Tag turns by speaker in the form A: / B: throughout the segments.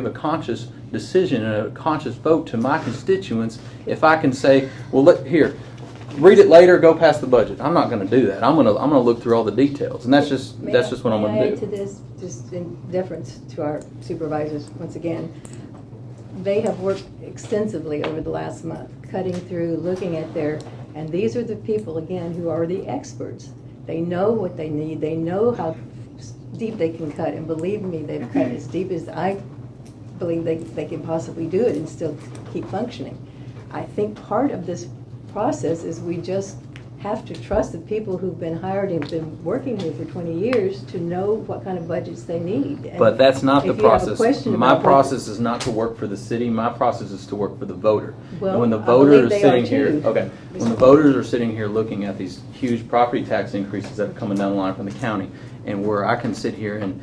A: give a conscious decision and a conscious vote to my constituents if I can say, well, look, here, read it later, go past the budget. I'm not gonna do that. I'm gonna, I'm gonna look through all the details, and that's just,
B: May
A: that's
B: I-
A: just what I'm
B: May I
A: gonna
B: add to
A: do.
B: this, just in deference to our supervisors, once again, they have worked extensively over the last month, cutting through, looking at their, and these are the people, again, who are the experts. They know what they need, they know how deep they can cut, and believe me, they've cut as deep as I believe they, they can possibly do it and still keep functioning. I think part of this process is we just have to trust the people who've been hired and been working here for 20 years to know what kind of budgets they need. And
A: But that's not the
B: if you have a
A: process.
B: question
A: My
B: about what-
A: process is not to work for the city, my process is to work for the voter.
B: Well,
A: And when the
B: I believe
A: voters
B: they
A: are
B: are
A: sitting here,
B: too.
A: okay, when the voters are sitting here looking at these huge property tax increases that are coming down the line from the county, and where I can sit here and,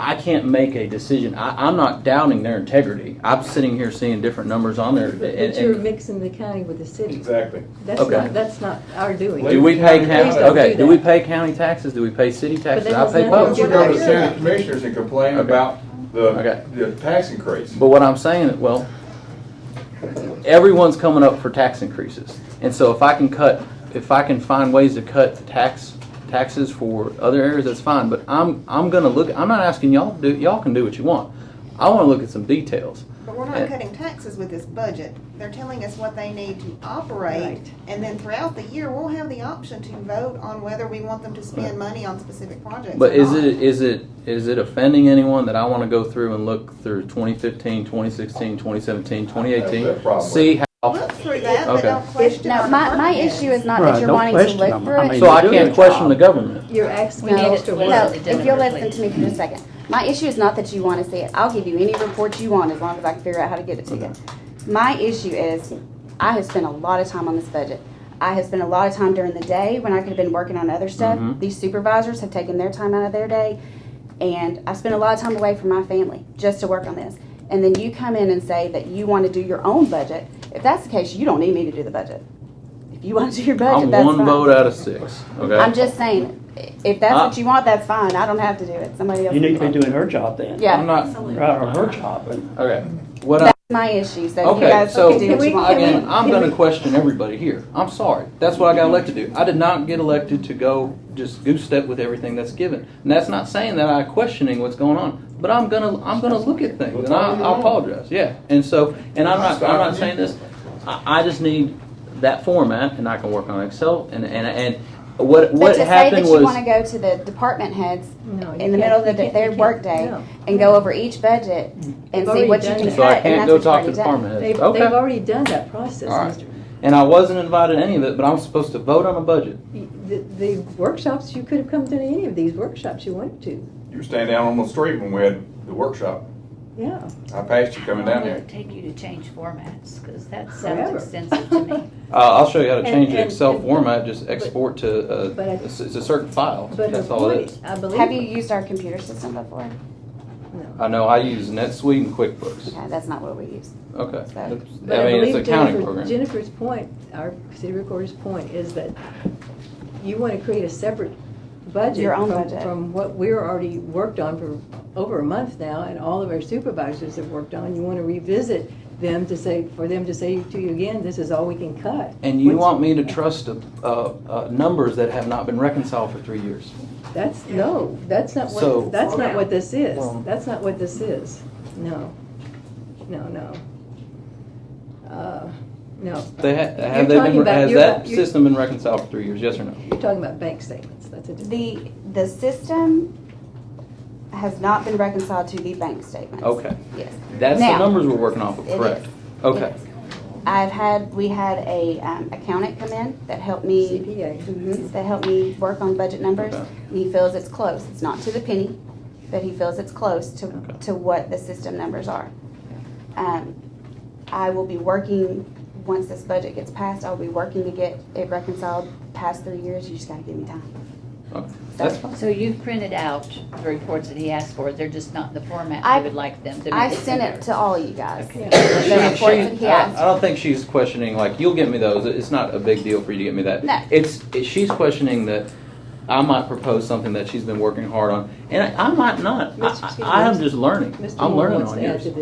A: I can't make a decision. I, I'm not doubting their integrity. I'm sitting here seeing different numbers on there. and-
B: But
A: and-
B: but you're mixing the county with the city.
C: Exactly.
B: That's
A: Okay.
B: not, that's not our doing.
A: Do we pay
B: Please
A: county,
B: don't
A: okay,
B: do
A: do we
B: that.
A: pay county taxes? Do we pay city taxes?
B: that
A: I
B: has
A: pay
B: nothing
C: Don't
A: both.
B: to
C: you
B: do
C: go to the
B: Yeah.
C: Senate commissioners and complain
A: Okay.
C: about
A: Okay.
C: the, the tax increase?
A: But what I'm saying, is, well, everyone's coming up for tax increases. And so if I can cut, if I can find ways to cut tax, taxes for other areas, that's fine. But I'm, I'm gonna look, I'm not asking y'all to do, y'all can do what you want. I wanna look at some details.
D: But we're
A: Yeah.
D: not cutting taxes with this budget. They're telling us what they need to operate.
B: Right.
D: And then throughout the year, we'll have the option to vote on whether we want them to
A: Right.
D: spend money on specific projects
A: But
D: or
A: is
D: not.
A: it, is it, is it offending anyone that I want to go through and look through 2015, 2016, 2017,
C: That's their
A: 2018?
C: problem.
A: See how,
D: Look through that,
A: Okay.
D: but don't question
E: No,
D: our
E: my, my
D: department.
E: issue is not
F: Right,
E: that you're
F: don't
E: wanting to
F: question
E: look
F: them.
E: through
F: I
E: it.
F: mean,
A: so I
F: do
A: can't
F: their
A: question
F: job.
A: the government.
B: You're asking
E: No,
B: us to
E: no,
B: work.
E: if you'll listen to me for just a second. My issue is not that you want to see it. I'll give you any report you want as long as I can figure out how to get it to you. My issue is, I have spent a lot of time on this budget. I have spent a lot of time during the day when I could have been working on other stuff.
A: Mhm.
E: These supervisors have taken their time out of their day, and I spent a lot of time away from my family just to work on this. And then you come in and say that you want to do your own budget. If that's the case, you don't need me to do the budget. If you want to do your budget,
A: I'm
E: that's fine.
A: one vote out of six,
E: I'm
A: okay?
E: just saying, if that's
A: uh,
E: what you want, that's fine. I don't have to do it. Somebody else.
F: You need to
E: can
F: be doing her job then.
E: Yeah.
A: I'm not,
F: Right, or her job. and-
A: okay. What I,
E: That's my issue. So you
A: okay,
E: guys
A: so,
E: can do what you want.
A: again, I'm gonna question everybody here. I'm sorry. That's what I got elected to do. I did not get elected to go just goose step with everything that's given. And that's not saying that I'm questioning what's going on, but I'm gonna, I'm gonna look at things, and I I apologize, yeah. And so, and I'm not, I'm not saying this, I, I just need that format, and I can work on Excel, and, and, and what,
E: But
A: what
E: to say that
A: happened
E: you want to
A: was.
E: go to the department heads
B: No, you
E: in the middle of
B: can't-
E: the,
B: you can't- you
E: their
B: can't-
E: workday
B: no. Mm-hmm.
E: and go over each budget and see
B: already
E: what you
B: done
E: can
B: that.
E: cut.
A: So I
E: and
A: can't
E: that's
A: go
E: what you've
A: talk to
E: already done.
A: department
B: They've,
A: heads,
B: they've
A: okay?
B: already done that process,
A: All right.
B: Mr.
A: And I wasn't invited to any of it, but I'm supposed to vote on a budget.
B: The, the workshops, you could have come to any of these workshops you wanted to,
C: You were standing down on the street when we had the workshop.
B: yeah.
C: I passed you coming
G: How
C: down
G: long
C: there.
G: would it take you to change formats? Because that
E: Oh,
B: Forever.
G: sounds extensive to me.
A: Uh, I'll show you how to
B: And-
A: change the
B: and-
A: Excel
B: and-
A: format, just export to, uh,
B: But I-
A: it's it's a certain file,
B: But her
A: that's all it
B: point,
A: is.
B: I
E: Have you
B: believe,
E: used our computer system before?
B: no.
A: I know, I use NetSuite and QuickBooks,
E: Okay, that's not what we use.
A: okay.
E: So-
A: I
B: But I
A: mean, it's
B: believe
A: an accounting
B: Jennifer-
A: program.
B: Jennifer's point, our city recorder's point, is that you want to create a separate budget.
E: Your own
B: from-
E: budget.
B: From what we're already worked on for over a month now, and all of our supervisors have worked on. You want to revisit them to say, for them to say to you again, this is all we can cut.
A: And you
B: What's-
A: want me to trust, uh, uh, numbers that have not been reconciled for three years?
B: That's, no, that's not
A: So-
B: what, that's not what this is.
A: Well-
B: That's not what this is. No, no, no. Uh, No.
A: They ha-
B: You're
A: have they
B: talking
A: been,
B: about-
A: has
B: you're-
A: that
B: you're-
A: system been reconciled for three years, yes or no?
B: You're talking about bank statements, that's a different.
E: The, the system has not been reconciled to the bank statements.
A: Okay,
E: Yes.
A: that's the
E: Now-
A: numbers we're working off of,
E: It is.
A: correct? Okay,
E: Yes. I've had, we had a um, accountant come in that helped me.
B: CPA.
E: Mhm, That helped me work on budget numbers.
A: Okay.
E: And he feels it's close. It's not to the penny, but he feels it's close to,
A: Okay.
E: to what the system numbers are. Um, I will be working, once this budget gets passed, I'll be working to get it reconciled past three years. You just gotta give me time.
A: okay, that's fine.
G: So you've printed out the reports that he asked for, they're just not in the format
E: I-
G: you would like them to be.
E: I sent it to all you guys.
G: Okay.
E: The
A: She-
E: reports
A: she-
E: that he
A: I-
E: asked
A: I don't think she's questioning, like, you'll get me those, it's not a big deal for you to get me that.
E: No.
A: It's, it- she's questioning that I might propose something that she's been working hard on, and I might not. I-
B: Mr.
A: I, I am just learning.
B: Mr.
A: I'm
B: Moore
A: learning
B: wants
A: on
B: to add
A: yours.
B: to